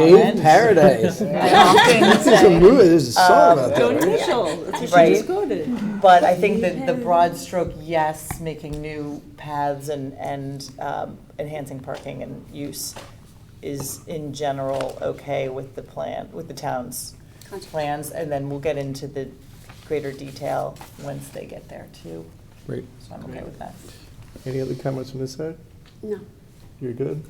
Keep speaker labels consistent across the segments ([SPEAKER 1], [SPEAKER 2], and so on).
[SPEAKER 1] Paved Paradise. This is a movie, there's a song about
[SPEAKER 2] Go
[SPEAKER 1] that, right?
[SPEAKER 2] Neutral, that's what she
[SPEAKER 3] Right.
[SPEAKER 2] just quoted.
[SPEAKER 3] But I think that the broad stroke, yes, making new paths and, and um, enhancing parking and use is in general okay with the plan, with the town's plans. And then we'll get into the greater detail once they get there too.
[SPEAKER 4] Great.
[SPEAKER 3] So I'm okay with that.
[SPEAKER 4] Any other comments on this side?
[SPEAKER 5] No.
[SPEAKER 4] You're good?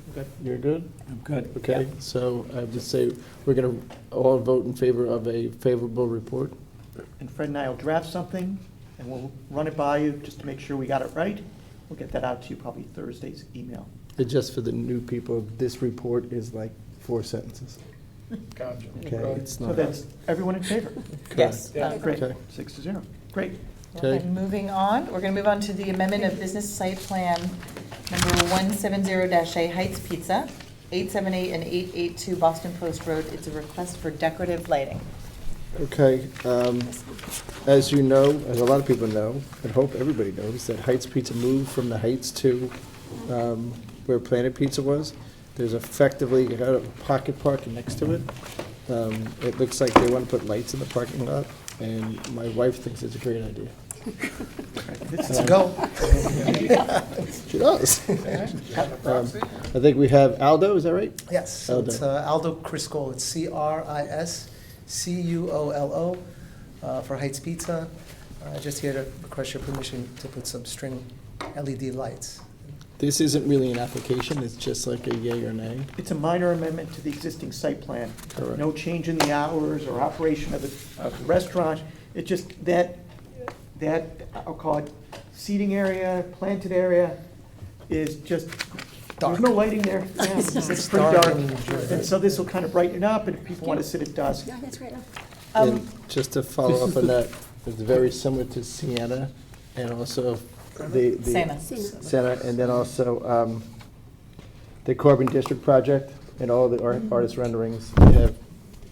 [SPEAKER 4] You're good?
[SPEAKER 1] I'm good.
[SPEAKER 4] Okay, so I would say we're going to all vote in favor of a favorable report.
[SPEAKER 6] And Fred and I will draft something, and we'll run it by you just to make sure we got it right. We'll get that out to you probably Thursday's email.
[SPEAKER 4] And Just for the new people, this report is like four sentences. Okay, it's
[SPEAKER 6] So
[SPEAKER 4] not.
[SPEAKER 6] that's everyone in favor?
[SPEAKER 3] Yes. um,
[SPEAKER 6] Great,
[SPEAKER 4] Okay.
[SPEAKER 6] six to zero. Great.
[SPEAKER 4] Okay.
[SPEAKER 3] And moving on, we're going to move on to the amendment of business site plan number 170-A Heights Pizza, 878 and 882 Boston Post Road. It's a request for decorative lighting.
[SPEAKER 4] Okay, um, as you know, as a lot of people know, and hope everybody knows, that Heights Pizza moved from the Heights to um, where Planet Pizza was. There's effectively a pocket park next to it. Um, It looks like they want to put lights in the parking lot, and my wife thinks it's a great idea. Um,
[SPEAKER 6] Let's go.
[SPEAKER 4] She does. Um, I think we have Aldo, is that right?
[SPEAKER 7] Yes, so it's
[SPEAKER 4] Aldo.
[SPEAKER 7] uh, Aldo Criscolo, it's C-R-I-S-C-U-O-L-O, uh, for Heights Pizza. Uh, Just here to request your permission to put some string LED lights.
[SPEAKER 4] This isn't really an application, it's just like a yay or nay.
[SPEAKER 6] It's a minor amendment to the existing site plan.
[SPEAKER 4] Correct.
[SPEAKER 6] No change in the hours or operation of the, of the restaurant. It just, that, that, I'll call it seating area, planted area is just, there's
[SPEAKER 7] Dark.
[SPEAKER 6] no lighting there. Yeah, It's pretty
[SPEAKER 7] dark
[SPEAKER 6] dark.
[SPEAKER 7] and enjoyable.
[SPEAKER 6] And so this will kind of brighten it up, and if people want to sit at dusk,
[SPEAKER 5] No, that's right.
[SPEAKER 4] And just to follow up on that, it's very similar to Sienna and also the. the-
[SPEAKER 3] Sienna.
[SPEAKER 5] Sienna.
[SPEAKER 4] Sienna, and then also um, the Corbin District Project and all the ar- artist renderings. They have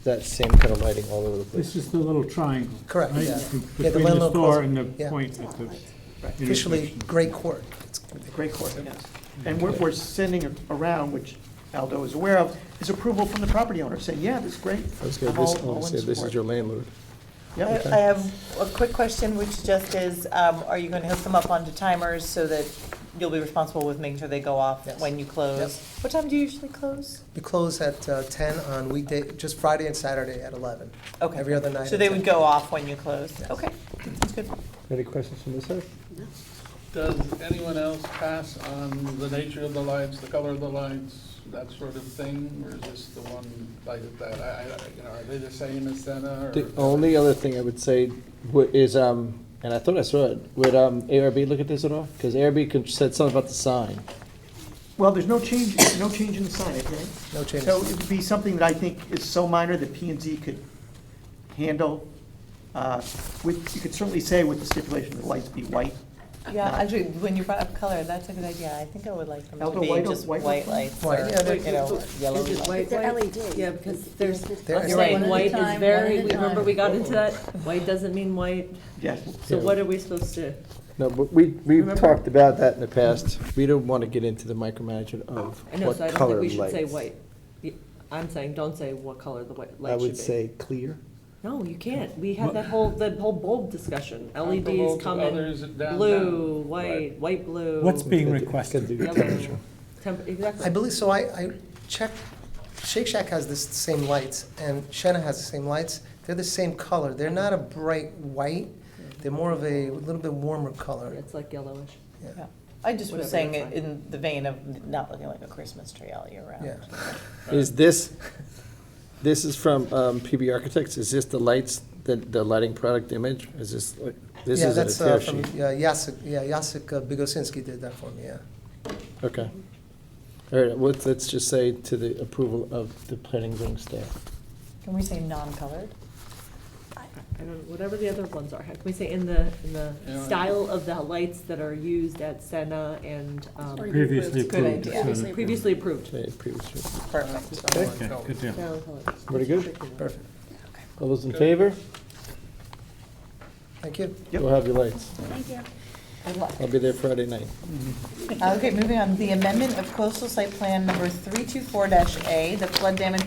[SPEAKER 4] that same kind of lighting all over the place.
[SPEAKER 8] This is the little triangle.
[SPEAKER 7] Correct,
[SPEAKER 8] right?
[SPEAKER 7] yeah.
[SPEAKER 8] Be-
[SPEAKER 7] Yeah, the
[SPEAKER 8] Between the
[SPEAKER 7] landlord
[SPEAKER 8] store
[SPEAKER 7] calls-
[SPEAKER 8] and the
[SPEAKER 7] yeah.
[SPEAKER 8] point at the.
[SPEAKER 7] Officially,
[SPEAKER 8] intersection.
[SPEAKER 7] great court. It's
[SPEAKER 6] Great court, yes. And what we're sending around, which Aldo is aware of, is approval from the property owner, saying, yeah, this is great.
[SPEAKER 4] I was gonna,
[SPEAKER 6] I'm
[SPEAKER 4] this,
[SPEAKER 6] all- all in
[SPEAKER 4] this
[SPEAKER 6] support. uh,
[SPEAKER 4] is your landlord.
[SPEAKER 3] I
[SPEAKER 6] Yep.
[SPEAKER 3] I have a quick question, which just is, um, are you going to hook them up onto timers so that you'll be responsible with making sure they go off
[SPEAKER 7] Yes.
[SPEAKER 3] when you close? What time do you usually close?
[SPEAKER 7] We close at uh, 10 on weekday, just Friday and Saturday at 11.
[SPEAKER 3] Okay.
[SPEAKER 7] Every other night
[SPEAKER 3] So
[SPEAKER 7] at
[SPEAKER 3] they
[SPEAKER 7] 10.
[SPEAKER 3] would go off when you close?
[SPEAKER 7] Yes.
[SPEAKER 3] Okay, that's good.
[SPEAKER 4] Any questions from this side?
[SPEAKER 9] Does anyone else pass on the nature of the lights, the color of the lights, that sort of thing? Or is this the one like that, I, I, you know, are they the same as Senna or?
[SPEAKER 4] The only other thing I would say wo- is, um, and I thought I saw it, would um, ARB look at this at all? Because ARB con- said something about the sign.
[SPEAKER 6] Well, there's no change, no change in the signage, right?
[SPEAKER 7] No changes.
[SPEAKER 6] So it would be something that I think is so minor that P and Z could handle. uh, With, you could certainly say with the stipulation that lights be white.
[SPEAKER 3] Yeah, actually, when you brought up color, that's a good idea. I think I would like them to
[SPEAKER 6] Elder
[SPEAKER 3] be
[SPEAKER 6] white or
[SPEAKER 3] just
[SPEAKER 6] white
[SPEAKER 3] white
[SPEAKER 6] or-
[SPEAKER 3] lights
[SPEAKER 7] White,
[SPEAKER 3] or,
[SPEAKER 7] yeah, they're-
[SPEAKER 3] you know, yellow lights.
[SPEAKER 5] They're LED.
[SPEAKER 2] Yeah, because there's,
[SPEAKER 7] There is-
[SPEAKER 2] you're right,
[SPEAKER 3] One at a
[SPEAKER 2] white
[SPEAKER 10] time,
[SPEAKER 2] is
[SPEAKER 10] one
[SPEAKER 2] very,
[SPEAKER 10] at a
[SPEAKER 2] remember
[SPEAKER 10] time.
[SPEAKER 2] we got into that? White doesn't mean white,
[SPEAKER 6] Yes.
[SPEAKER 2] so what are we supposed to?
[SPEAKER 4] No, but we, we've
[SPEAKER 6] Remember-
[SPEAKER 4] talked about that in the past. We don't want to get into the micromanagement of
[SPEAKER 2] Oh, I know,
[SPEAKER 4] what
[SPEAKER 2] so I don't
[SPEAKER 4] color
[SPEAKER 2] think we
[SPEAKER 4] lights.
[SPEAKER 2] should say white. Y- I'm saying, don't say what color the white
[SPEAKER 4] I
[SPEAKER 2] light should
[SPEAKER 4] would
[SPEAKER 2] be.
[SPEAKER 4] say clear.
[SPEAKER 2] No, you can't. We had that whole, that whole bulb discussion. LEDs
[SPEAKER 9] Comparable to
[SPEAKER 2] come in
[SPEAKER 9] others down- down.
[SPEAKER 2] blue, white, white, blue.
[SPEAKER 8] What's being
[SPEAKER 4] Could do-
[SPEAKER 8] requested?
[SPEAKER 4] could do
[SPEAKER 2] Yellow. Temp,
[SPEAKER 7] I
[SPEAKER 2] exactly.
[SPEAKER 7] believe, so I, I checked, Shake Shack has the same lights, and Shenna has the same lights. They're the same color. They're not a bright white. They're more of a, little bit warmer color.
[SPEAKER 2] It's like yellowish.
[SPEAKER 3] Yeah. I just was
[SPEAKER 2] Whatever,
[SPEAKER 3] saying
[SPEAKER 2] that's
[SPEAKER 3] it
[SPEAKER 2] fine.
[SPEAKER 3] in the vein of not looking like a Christmas tree all year round.
[SPEAKER 7] Yeah.
[SPEAKER 4] Is this, this is from um, PB Architects, is this the lights, the, the lighting product image? Is this, like- this
[SPEAKER 7] yeah,
[SPEAKER 4] is
[SPEAKER 7] that's
[SPEAKER 4] a tear
[SPEAKER 7] uh, from
[SPEAKER 4] sheet?
[SPEAKER 7] yeah, Yasek. Yeah, Yasek uh, Bigosinski did that for me. Yeah.
[SPEAKER 4] Okay. All right, let's, let's just say to the approval of the planning zone staff.
[SPEAKER 3] Can we say non-colored?
[SPEAKER 2] I don't, know, whatever the other ones are. How Can we say in the, in the
[SPEAKER 9] Yeah.
[SPEAKER 2] style of the lights that are used at Senna and um,
[SPEAKER 8] Previously
[SPEAKER 3] It's a good
[SPEAKER 8] approved.
[SPEAKER 3] idea.
[SPEAKER 8] so-
[SPEAKER 5] Previously-
[SPEAKER 2] previously approved?
[SPEAKER 4] Okay, previous-
[SPEAKER 3] Perfect.
[SPEAKER 8] Okay, good deal.
[SPEAKER 2] Salad colors.
[SPEAKER 4] Pretty good.
[SPEAKER 7] Perfect.
[SPEAKER 4] All those in favor?
[SPEAKER 7] Thank you.
[SPEAKER 6] Yep.
[SPEAKER 4] We'll have your lights.
[SPEAKER 5] Thank you.
[SPEAKER 3] Good luck.
[SPEAKER 4] I'll be there Friday night.
[SPEAKER 3] Okay, moving on. The amendment of coastal site plan number 324-A, the flood damage